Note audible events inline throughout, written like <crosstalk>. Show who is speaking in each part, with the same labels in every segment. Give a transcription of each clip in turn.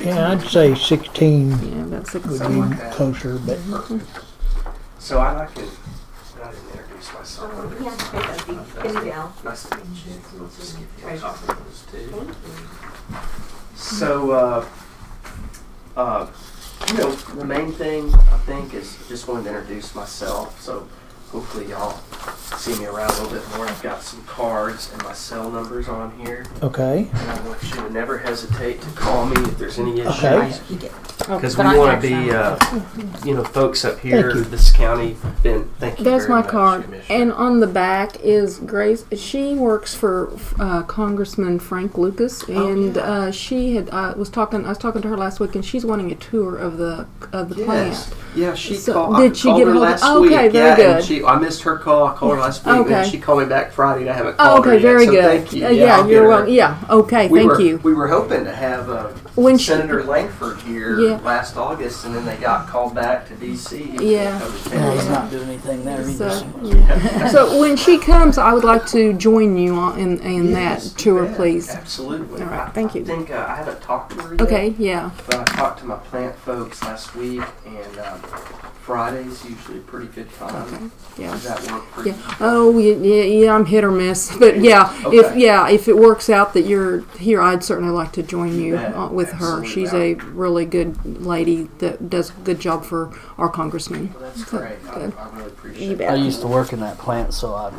Speaker 1: Yeah, I'd say sixteen
Speaker 2: Yeah, about six.
Speaker 1: would
Speaker 2: somewhere.
Speaker 1: be closer, but
Speaker 3: So I'd like to, I didn't introduce myself.
Speaker 4: Yeah, there you go. Gal.
Speaker 3: Oh, Nice to meet you. We'll just give you a copy of those too. So, uh, uh, you know, the main thing I think is just wanted to introduce myself. So hopefully y'all see me around a little bit more. I've got some cards and my cell numbers on here.
Speaker 1: okay,
Speaker 3: And I want you to never hesitate to call me if there's any issues.
Speaker 1: Okay.
Speaker 4: You did.
Speaker 2: Oh,
Speaker 3: Because we
Speaker 2: but I
Speaker 3: want to
Speaker 2: text
Speaker 3: be,
Speaker 2: them.
Speaker 3: uh, you know, folks up here,
Speaker 1: you.
Speaker 3: this county, been, thank you
Speaker 2: There's
Speaker 3: very
Speaker 2: my
Speaker 3: much,
Speaker 2: card,
Speaker 3: Commissioner.
Speaker 2: and on the back is Grace. She works for uh, Congressman Frank Lucas,
Speaker 3: Oh,
Speaker 2: and uh, she had uh, was talking. I was talking to her last week, and she's wanting a tour of the of the
Speaker 3: Yes.
Speaker 2: plant.
Speaker 3: Yeah, she
Speaker 2: So,
Speaker 3: called.
Speaker 2: did
Speaker 3: I
Speaker 2: she
Speaker 3: called
Speaker 2: get
Speaker 3: her
Speaker 2: hold of-
Speaker 3: last week.
Speaker 2: okay, very
Speaker 3: yeah,
Speaker 2: good.
Speaker 3: And she, I missed her call. I called her last week,
Speaker 2: Okay.
Speaker 3: and she called me back Friday, and I haven't called
Speaker 2: Oh, okay,
Speaker 3: her yet.
Speaker 2: very
Speaker 3: so
Speaker 2: good.
Speaker 3: Thank you.
Speaker 2: Uh,
Speaker 3: yeah, I'll get
Speaker 2: you're
Speaker 3: her.
Speaker 2: welcome. Yeah, okay,
Speaker 3: We
Speaker 2: thank
Speaker 3: were,
Speaker 2: you.
Speaker 3: We were hoping to have uh,
Speaker 2: When she-
Speaker 3: Senator Langford here
Speaker 2: Yeah.
Speaker 3: last August, and then they got called back to D.C.
Speaker 2: Yeah.
Speaker 1: no, he's not doing anything there either.
Speaker 2: So,
Speaker 1: So.
Speaker 2: yeah. So when she comes, I would like to join you on, in in
Speaker 3: Yes,
Speaker 2: that tour,
Speaker 3: yeah,
Speaker 2: please.
Speaker 3: Absolutely.
Speaker 2: All right,
Speaker 3: I-
Speaker 2: thank you.
Speaker 3: I think uh, I haven't talked to her yet.
Speaker 2: Okay, yeah.
Speaker 3: But I talked to my plant folks last week, and um, Friday's usually a pretty good time.
Speaker 2: Okay. Yeah.
Speaker 3: Does that work for
Speaker 2: Yeah.
Speaker 3: you?
Speaker 2: Oh, y- yeah, yeah. I'm hit or
Speaker 3: <laughs>
Speaker 2: miss, but yeah, if
Speaker 3: Okay.
Speaker 2: yeah, if it works out that you're here, I'd certainly like to join you
Speaker 3: bet.
Speaker 2: uh, with her.
Speaker 3: Absolutely.
Speaker 2: She's a really good lady that does a good job for our congressman.
Speaker 3: Well, that's great. I,
Speaker 2: Good.
Speaker 3: I really appreciate
Speaker 2: You
Speaker 3: it.
Speaker 2: bet.
Speaker 1: I used to work in that plant, so I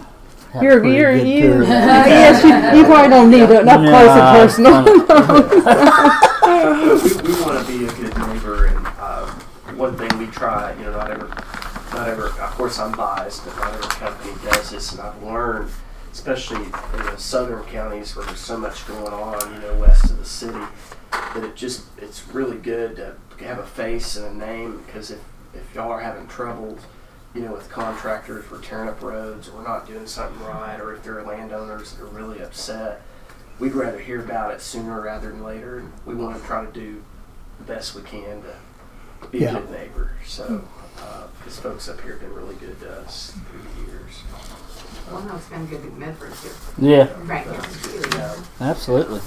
Speaker 1: had
Speaker 2: You're-
Speaker 1: a pretty
Speaker 2: you're-
Speaker 1: good
Speaker 2: you-
Speaker 1: tour.
Speaker 2: <laughs> uh, yes, you, you probably don't need it up
Speaker 1: Yeah,
Speaker 2: close and personal.
Speaker 3: we, we want to be a good neighbor, and uh, one thing we try, you know, not ever, not ever. Of course, I'm biased, but not every company does this, and I've learned, especially in the southern counties where there's so much going on, you know, west of the city, that it just it's really good to have a face and a name because if if y'all are having trouble. You know, with contractors, we're tearing up roads, we're not doing something right, or if there are landowners that are really upset, we'd rather hear about it sooner rather than later. and We want to try to do the best we can to be
Speaker 1: Yeah.
Speaker 3: a good neighbor. So, uh, these folks up here have been really good to us through the years.
Speaker 4: Well, no, it's been good to Medford too.
Speaker 1: yeah,
Speaker 4: Right. it's really good.
Speaker 1: absolutely.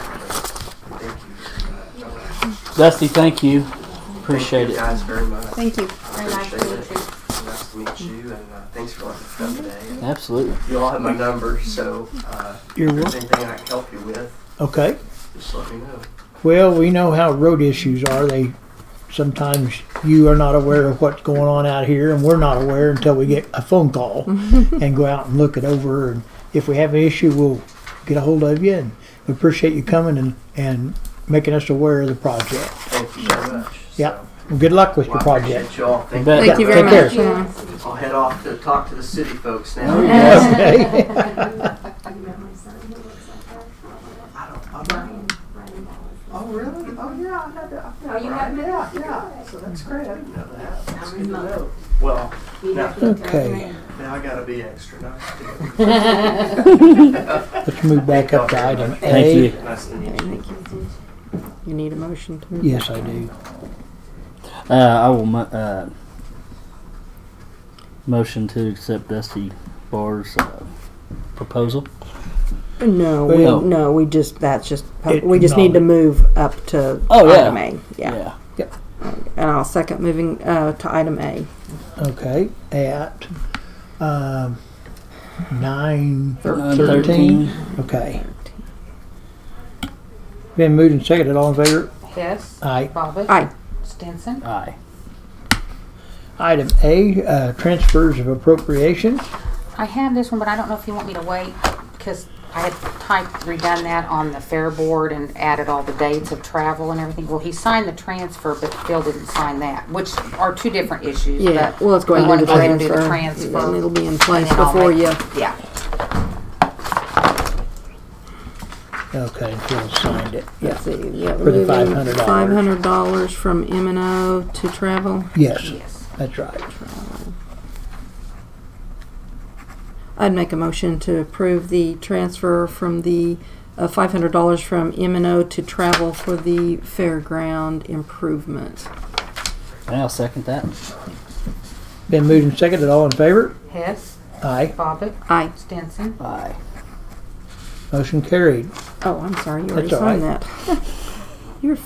Speaker 3: Thank you very much.
Speaker 1: Dusty, thank you.
Speaker 3: Thank
Speaker 1: Appreciate
Speaker 3: you
Speaker 1: it.
Speaker 3: guys very much.
Speaker 2: Thank you.
Speaker 3: I
Speaker 4: Very nice to meet
Speaker 3: appreciate it.
Speaker 4: you.
Speaker 3: Nice to meet you, and uh, thanks for letting us come today. And
Speaker 1: Absolutely.
Speaker 3: you all have my number, so uh,
Speaker 1: You're
Speaker 3: if there's
Speaker 1: welcome.
Speaker 3: anything I can help you with,
Speaker 1: Okay.
Speaker 3: just let me know.
Speaker 1: Well, we know how road issues are. They sometimes you are not aware of what's going on out here, and we're not aware until we get a phone <laughs> call and go out and look it over. And if we have an issue, we'll get a hold of you. And we appreciate you coming and and making us aware of the project.
Speaker 3: Thank you very much.
Speaker 1: Yeah.
Speaker 3: So,
Speaker 1: Well, good luck with
Speaker 3: well,
Speaker 1: your
Speaker 3: I
Speaker 1: project.
Speaker 3: appreciate you all. Thank,
Speaker 1: bet.
Speaker 2: Thank you very
Speaker 1: Take care.
Speaker 2: much. yeah.
Speaker 3: I'll head off to talk to the city folks now.
Speaker 1: Oh, Okay.
Speaker 4: You met my son, who looks like that?
Speaker 3: I don't, I'm not.
Speaker 4: Ryan Wallace.
Speaker 3: Oh, really? Oh, yeah, I had that.
Speaker 4: Oh, you had
Speaker 3: Yeah, yeah. So that's great. I didn't know that. That's good to
Speaker 4: remote.
Speaker 3: know. Well,
Speaker 4: You
Speaker 3: No.
Speaker 4: have to look at
Speaker 1: Okay.
Speaker 4: her name.
Speaker 3: now I gotta be extra nice to you.
Speaker 1: Let's move back up to item A.
Speaker 5: Thank you.
Speaker 1: <laughs>
Speaker 3: Nice to meet you.
Speaker 2: You need a motion to move.
Speaker 1: Yes, I do.
Speaker 5: Uh, I will mo- uh, motion to accept Dusty Barr's uh, proposal.
Speaker 2: No,
Speaker 1: Well-
Speaker 2: we, no, we just that's just
Speaker 1: It-
Speaker 2: we just need to
Speaker 1: no.
Speaker 2: move up to
Speaker 5: Oh, yeah.
Speaker 2: item A. Yeah. and I'll second moving uh, to item A.
Speaker 1: Okay. At um, nine
Speaker 5: Nine
Speaker 1: thirteen. Okay. Been moved and seconded. All in favor?
Speaker 6: Hess.
Speaker 1: Aye.
Speaker 6: Bobbit.
Speaker 2: Aye.
Speaker 6: Stinson.
Speaker 5: Aye.
Speaker 1: Item A, uh, transfers of appropriations.
Speaker 6: I have this one, but I don't know if you want me to wait because I had typed, redone that on the fair board and added all the dates of travel and everything. Well, he signed the transfer, but Phil didn't sign that, which are two different issues.
Speaker 2: Yeah,
Speaker 6: but
Speaker 2: well, let's go
Speaker 6: we
Speaker 2: ahead and
Speaker 6: wanna
Speaker 2: do the
Speaker 6: go ahead and do
Speaker 2: transfer.
Speaker 6: the
Speaker 2: Then
Speaker 6: transfer.
Speaker 2: it'll be in place
Speaker 6: then I'll
Speaker 2: before
Speaker 6: make-
Speaker 2: you.
Speaker 6: Yeah.
Speaker 1: Okay, Phil signed it.
Speaker 2: Let's see, yeah,
Speaker 1: For the
Speaker 2: moving
Speaker 1: $500.
Speaker 2: $500 from M and O to travel.
Speaker 1: Yes,
Speaker 6: Yes.
Speaker 1: that's right.
Speaker 2: I'd make a motion to approve the transfer from the uh, $500 from M and O to travel for the fairground improvement.
Speaker 5: And I'll second that.
Speaker 1: Been moved and seconded. All in favor?
Speaker 6: Hess.
Speaker 1: Aye.
Speaker 6: Bobbit.
Speaker 2: Aye.
Speaker 6: Stinson.
Speaker 5: Aye.
Speaker 1: Motion carried.
Speaker 2: Oh, I'm sorry, you already
Speaker 1: That's all
Speaker 2: signed that. You're